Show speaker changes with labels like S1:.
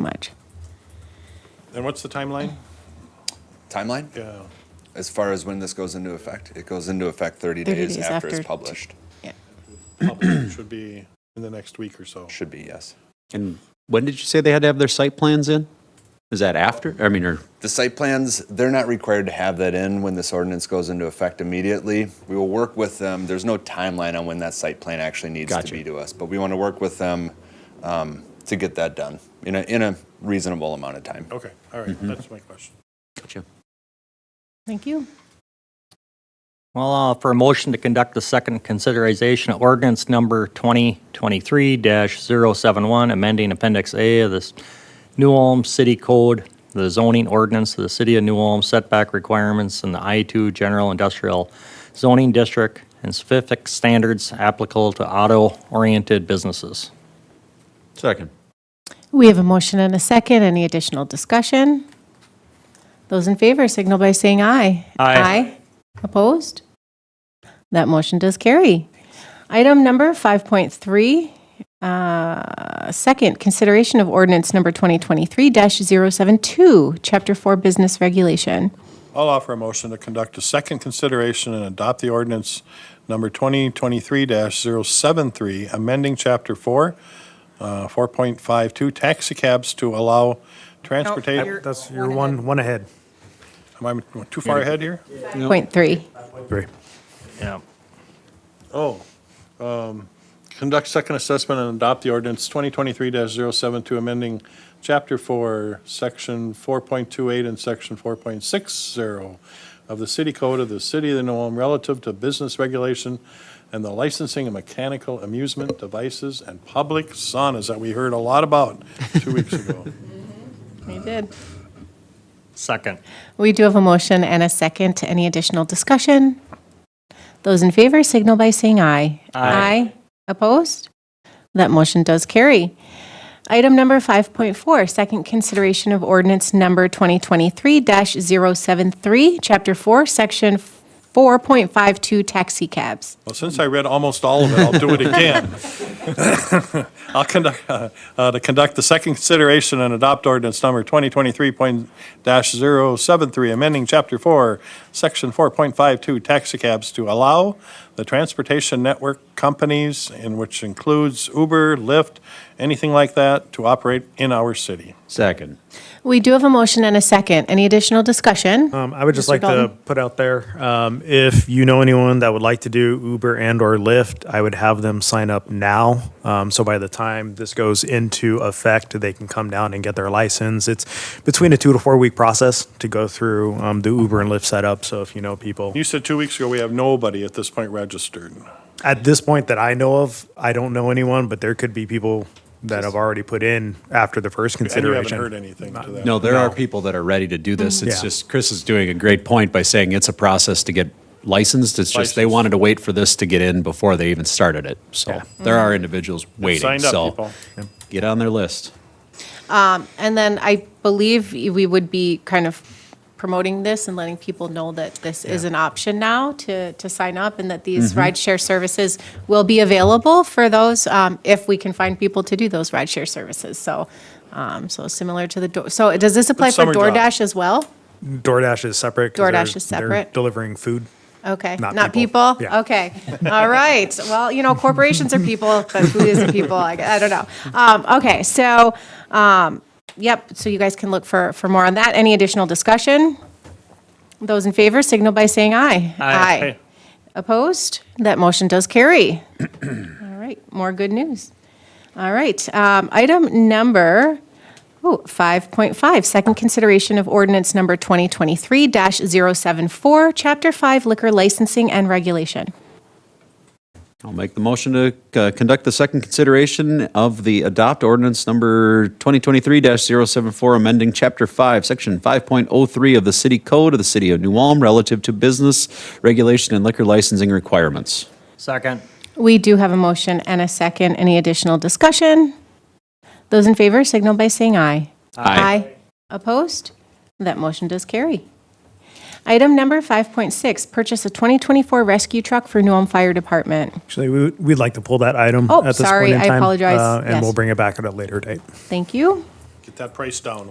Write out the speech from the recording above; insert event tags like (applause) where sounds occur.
S1: much.
S2: And what's the timeline?
S3: Timeline?
S2: Yeah.
S3: As far as when this goes into effect? It goes into effect 30
S1: 30
S3: days
S1: days
S3: after
S1: after
S3: it's
S1: t-
S3: published.
S1: Yeah.
S2: Public Should be in the next week or so.
S3: Should be, yes.
S4: And when did you say they had to have their site plans in? Is that after? I mean, or,
S3: The site plans, they're not required to have that in when this ordinance goes into effect immediately. We will work with them. There's no timeline on when that site plan actually needs to
S4: Gotcha.
S3: be to us, but we want to work with them um, to get that done in a, in a reasonable amount of time.
S2: Okay, all right, that's my question.
S4: gotcha.
S1: Thank you.
S5: Well, uh, for a motion to conduct the second considerization of ordinance number 2023-071, amending Appendix A of this New Ulm City Code, the zoning ordinance of the City of New Ulm setback requirements in the I-2 General Industrial Zoning District and specific standards applicable to auto-oriented businesses.
S4: Second.
S1: We have a motion and a second. Any additional discussion? Those in favor signal by saying aye.
S5: Aye.
S1: Opposed? That motion does carry. Item number 5.3, uh, second, consideration of ordinance number 2023-072, Chapter 4 Business Regulation.
S2: I'll offer a motion to conduct a second consideration and adopt the ordinance number 2023-073, amending Chapter 4, uh, 4.52, taxi cabs to allow transportation.
S6: That's your Oh, one, one ahead.
S2: Am I too far ahead here?
S1: Point 3.
S6: Three.
S5: Yeah.
S2: Oh, um, conduct second assessment and adopt the ordinance 2023-072, amending Chapter 4, Section 4.28 and Section 4.60 of the City Code of the City of New Ulm relative to business regulation and the licensing of mechanical amusement devices and public saunas that we heard a lot about two weeks ago.
S1: We did.
S5: Second.
S1: We do have a motion and a second. Any additional discussion? Those in favor signal by saying aye. Aye. Opposed? That motion does carry. Item number 5.4, second consideration of ordinance number 2023-073, Chapter 4, Section 4.52, taxi cabs.
S2: Well, since I read almost all of it, I'll do it
S4: (laughs)
S2: again. I'll conduct, uh, uh, to conduct the second consideration and adopt ordinance number 2023.073, amending Chapter 4, Section 4.52, taxicabs to allow the transportation network companies, in which includes Uber, Lyft, anything like that, to operate in our city.
S4: Second.
S1: We do have a motion and a second. Any additional discussion?
S6: Um, I would just
S1: Mr.
S6: like to
S1: Dalton?
S6: put out there, um, if you know anyone that would like to do Uber and or Lyft, I would have them sign up now. Um, so by the time this goes into effect, they can come down and get their license. It's between a two to four week process to go through, um, the Uber and Lyft setup. So if you know people,
S2: You said two weeks ago, we have nobody at this point registered.
S6: at this point that I know of, I don't know anyone, but there could be people that have already put in after the first
S2: And you
S6: consideration.
S2: haven't heard anything to that.
S4: No, there are people that are ready to do this. It's
S6: Yeah.
S4: just, Chris is doing a great point by saying it's a process to get licensed. It's just they
S2: Licensed.
S4: wanted to wait for this to get in before they even started it. So
S6: Yeah.
S4: there are individuals waiting,
S2: signed up,
S4: so
S2: people.
S4: get on their list.
S1: And then I believe we would be kind of promoting this and letting people know that this is an option now to, to sign up and that these rideshare services will be available for those, um, if we can find people to do those rideshare services. So, um, so similar to the, Do- so does this apply
S2: It's
S1: for
S2: summer job.
S1: DoorDash as well?
S6: DoorDash is separate. 'cause
S1: DoorDash
S6: they're-
S1: is
S6: they're
S1: separate.
S6: Delivering food.
S1: Okay,
S6: Not
S1: not people?
S6: people. Yeah.
S1: Okay, all right. Well, you know, corporations are people, but food isn't people, I gu- I don't know. Um, Okay, so, um, yep, so you guys can look for, for more on that. Any additional discussion? Those in favor signal by saying aye. Aye. Opposed? That motion does carry. (clears throat) All right, more good news. All right, um, item number Ooh, 5.5, second consideration of ordinance number 2023-074, Chapter 5 Liquor Licensing and Regulation.
S4: I'll make the motion to uh, conduct the second consideration of the adopt ordinance number 2023-074, amending Chapter 5, Section 5.03 of the City Code of the City of New Ulm relative to business regulation and liquor licensing requirements.
S5: Second.
S1: We do have a motion and a second. Any additional discussion? Those in favor signal by saying aye. Opposed? That motion does carry. Item number 5.6, purchase a 2024 rescue truck for Newham Fire Department.
S6: Actually, we, would- we'd like to pull that item
S1: Oh,
S6: at this
S1: sorry,
S6: point in
S1: I
S6: time.
S1: apologize.
S6: uh, And
S1: Yes.
S6: we'll bring it back at a later date.
S1: Thank you.
S2: get that price down